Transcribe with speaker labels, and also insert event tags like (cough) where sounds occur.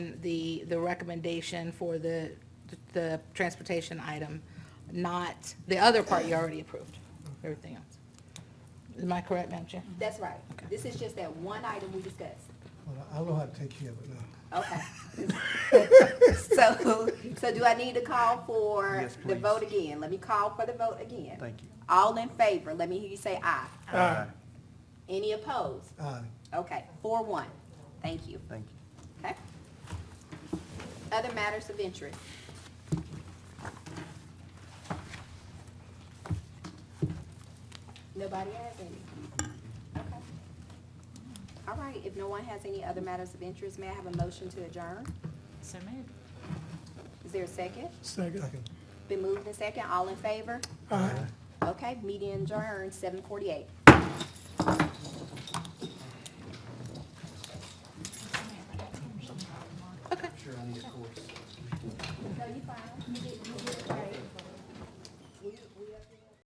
Speaker 1: on the, the recommendation for the, the transportation item, not, the other part you already approved, everything else. Am I correct, Madam Chair?
Speaker 2: That's right.
Speaker 1: Okay.
Speaker 2: This is just that one item we discussed.
Speaker 3: Well, I know how to take care of it now.
Speaker 2: Okay.
Speaker 4: (laughs)
Speaker 2: So, so do I need to call for
Speaker 4: Yes,
Speaker 2: the
Speaker 4: please.
Speaker 2: vote again? Let me call for the vote again.
Speaker 4: Thank you.
Speaker 2: All in favor, let me hear you say aye.
Speaker 4: Aye.
Speaker 2: Any opposed?
Speaker 3: Aye.
Speaker 2: Okay, four one. Thank you.
Speaker 4: Thank you.
Speaker 2: Okay. Other matters of interest? Nobody has any? Okay. All right, if no one has any other matters of interest, may I have a motion to adjourn?
Speaker 5: So moved.
Speaker 2: Is there a second?
Speaker 3: Second. Ah.
Speaker 2: Been moved and second, all in favor?
Speaker 3: Aye.
Speaker 2: Okay, meeting adjourned, seven forty-eight.
Speaker 1: Okay.
Speaker 2: No, you fine.